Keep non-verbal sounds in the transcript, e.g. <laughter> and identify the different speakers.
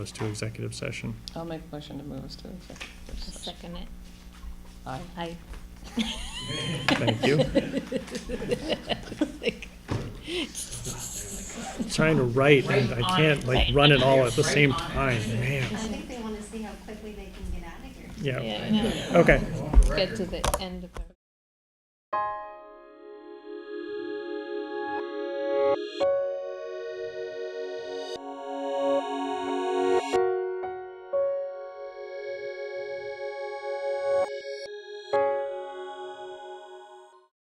Speaker 1: us to executive session.
Speaker 2: I'll make a motion to move us to executive
Speaker 3: I'll
Speaker 2: session.
Speaker 3: second it.
Speaker 2: Aye.
Speaker 3: <laughs> Aye.
Speaker 1: Thank you. Trying to write and I can't like run it all at the same time,
Speaker 4: I
Speaker 1: man.
Speaker 4: think they want to see how quickly they can get out of
Speaker 1: Yeah,
Speaker 4: here.
Speaker 3: Yeah, I know.
Speaker 1: okay.
Speaker 3: Get to the end of it.